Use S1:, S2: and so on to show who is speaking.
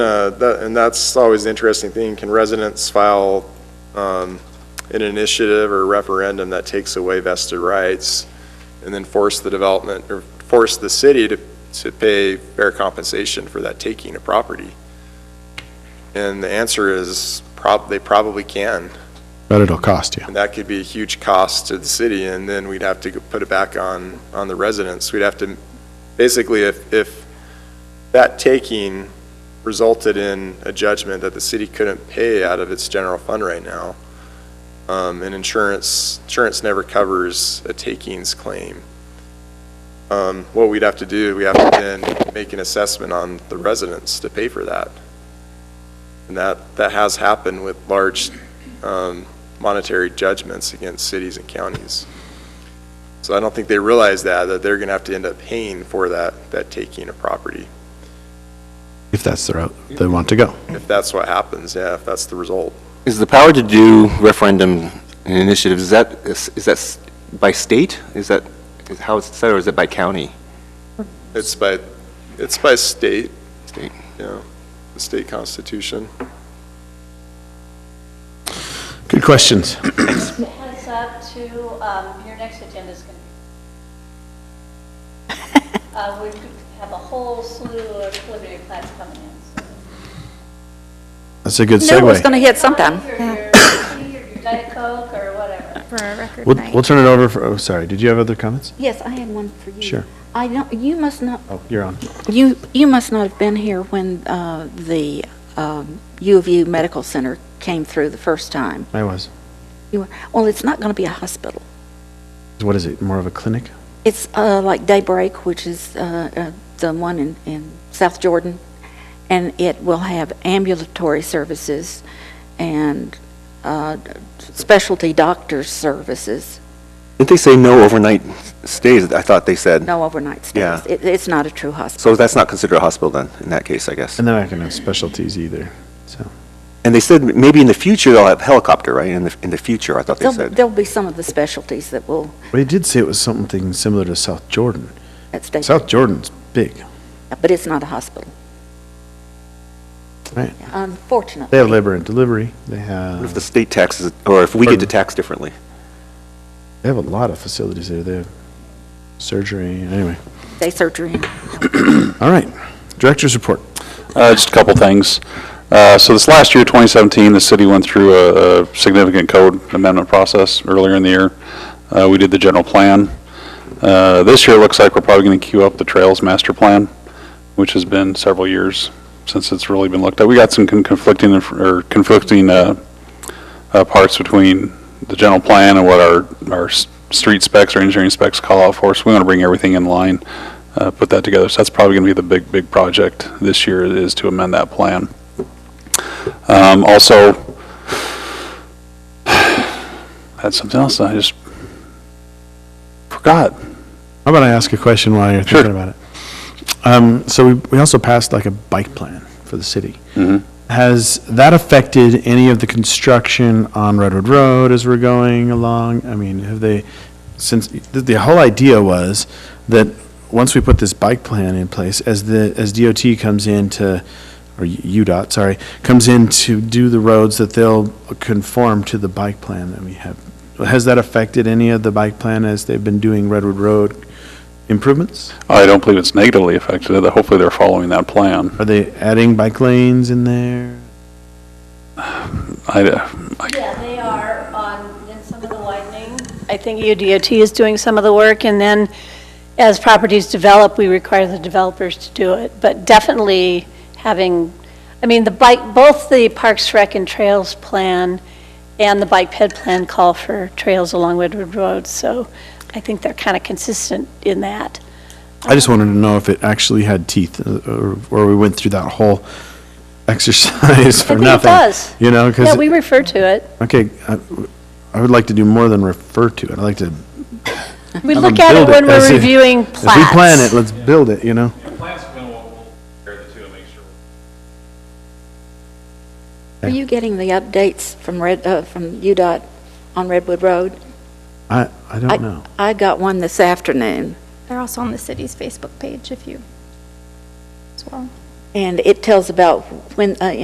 S1: Uh, that- And that's always the interesting thing, can residents file um, an initiative or referendum that takes away vested rights and then force the development, or force the city to, to pay fair compensation for that taking of property? And the answer is, prob, they probably can.
S2: But it'll cost you.
S1: And that could be a huge cost to the city, and then we'd have to put it back on, on the residents. We'd have to, basically, if, if that taking resulted in a judgment that the city couldn't pay out of its general fund right now, um, and insurance, insurance never covers a takings claim, um, what we'd have to do, we have to then make an assessment on the residents to pay for that. And that, that has happened with large, um, monetary judgments against cities and counties. So I don't think they realize that, that they're going to have to end up paying for that, that taking of property,
S2: If that's the route they want to go.
S1: if that's what happens, yeah, if that's the result.
S3: Is the power to do referendum and initiatives, is that, is is that s- by state? Is that, is how it's set, or is it by county?
S1: It's by, it's by state,
S3: State.
S1: you know, the state constitution.
S2: Good questions.
S4: Heads up to, um, your next agenda is going to be, uh, we could have a whole slew of preliminary plans coming in.
S2: That's a good
S5: No, it's
S2: segue.
S5: going to hit sometime.
S4: Your, your tea or your Diet Coke or whatever.
S6: for a record
S2: We'll,
S6: night.
S2: we'll turn it over for, oh, sorry, did you have other comments?
S5: Yes, I had one for you.
S2: Sure.
S5: I don't, you must not,
S2: Oh, you're on.
S5: you, you must not have been here when uh, the um, U of U Medical Center came through the first time.
S2: I was.
S5: You were, well, it's not going to be a hospital.
S2: What is it, more of a clinic?
S5: It's uh, like Daybreak, which is uh, uh, the one in, in South Jordan, and it will have ambulatory services and uh, specialty doctor's services,
S3: Didn't they say no overnight stays, I thought they said?
S5: no overnight stays.
S3: Yeah.
S5: It, it's not a true hospital.
S3: So that's not considered a hospital then, in that case, I guess?
S2: And they're not going to have specialties either, so.
S3: And they said maybe in the future they'll have helicopter, right? In the, in the future, I thought they
S5: There'll,
S3: said.
S5: there'll be some of the specialties that will,
S2: But he did say it was something similar to South Jordan.
S5: at stake,
S2: South Jordan's big,
S5: but it's not a hospital,
S2: right? They
S5: unfortunately.
S2: have labor and delivery, they
S3: What If
S2: have,
S3: the state taxes, or if we get to
S2: Pardon?
S3: tax differently?
S2: they have a lot of facilities there, they have surgery, anyway.
S5: Day surgery.
S2: All right, director's report.
S7: Uh, Just a couple things. Uh, So this last year, 2017, the city went through a a significant code amendment process earlier in the year. Uh, We did the general plan. Uh, This year, it looks like we're probably going to queue up the Trails Master Plan, which has been several years since it's really been looked at. We got some con- conflicting, inf- or conflicting uh, uh, parts between the general plan and what our, our s- street specs or engineering specs call out for, so we want to bring everything in line uh, put that together. So that's probably going to be the big, big project this year is to amend that plan. Um, Also, had something else that I just forgot.
S2: How about I ask a question while you're
S7: Sure.
S2: thinking about it? Um, so we, we also passed like a bike plan for the city. Has that affected any of the construction on Redwood Road as we're going along? I mean, have they, since, the, the whole idea was that once we put this bike plan in place, as the, as DOT comes in to, or U- UDOT, sorry, comes in to do the roads, that they'll conform to the bike plan that we have. Has that affected any of the bike plan as they've been doing Redwood Road improvements?
S7: I don't believe it's negatively affected, although hopefully they're following that plan.
S2: Are they adding bike lanes in there?
S7: I, uh,
S4: Yeah, they are on, in some of the widening. I think UDOT is doing some of the work, and then as properties develop, we require the developers to do it. But definitely having, I mean, the bike, both the Parks Rec and Trails Plan and the Bike Ped Plan call for trails along Woodward Road, so I think they're kind of consistent in that.
S2: I just wanted to know if it actually had teeth, uh, or, or we went through that whole exercise for
S4: think it
S2: nothing.
S4: does.
S2: You know,
S4: Yeah,
S2: because,
S4: we refer to it.
S2: okay, I, I would like to do more than refer to it. I'd like to,
S4: We
S2: Have
S4: look
S2: them
S4: at it
S2: build it
S4: when
S2: as
S4: we're
S2: if-
S4: reviewing
S2: if we
S4: plats.
S2: plan it, let's build it, you know?
S8: Plants will, will compare the two and make sure.
S5: Are you getting the updates from Red, uh, from UDOT on Redwood Road?
S2: I, I don't know.
S5: I got one this afternoon.
S6: They're also on the city's Facebook page if you, as well.
S5: And it tells about when, uh,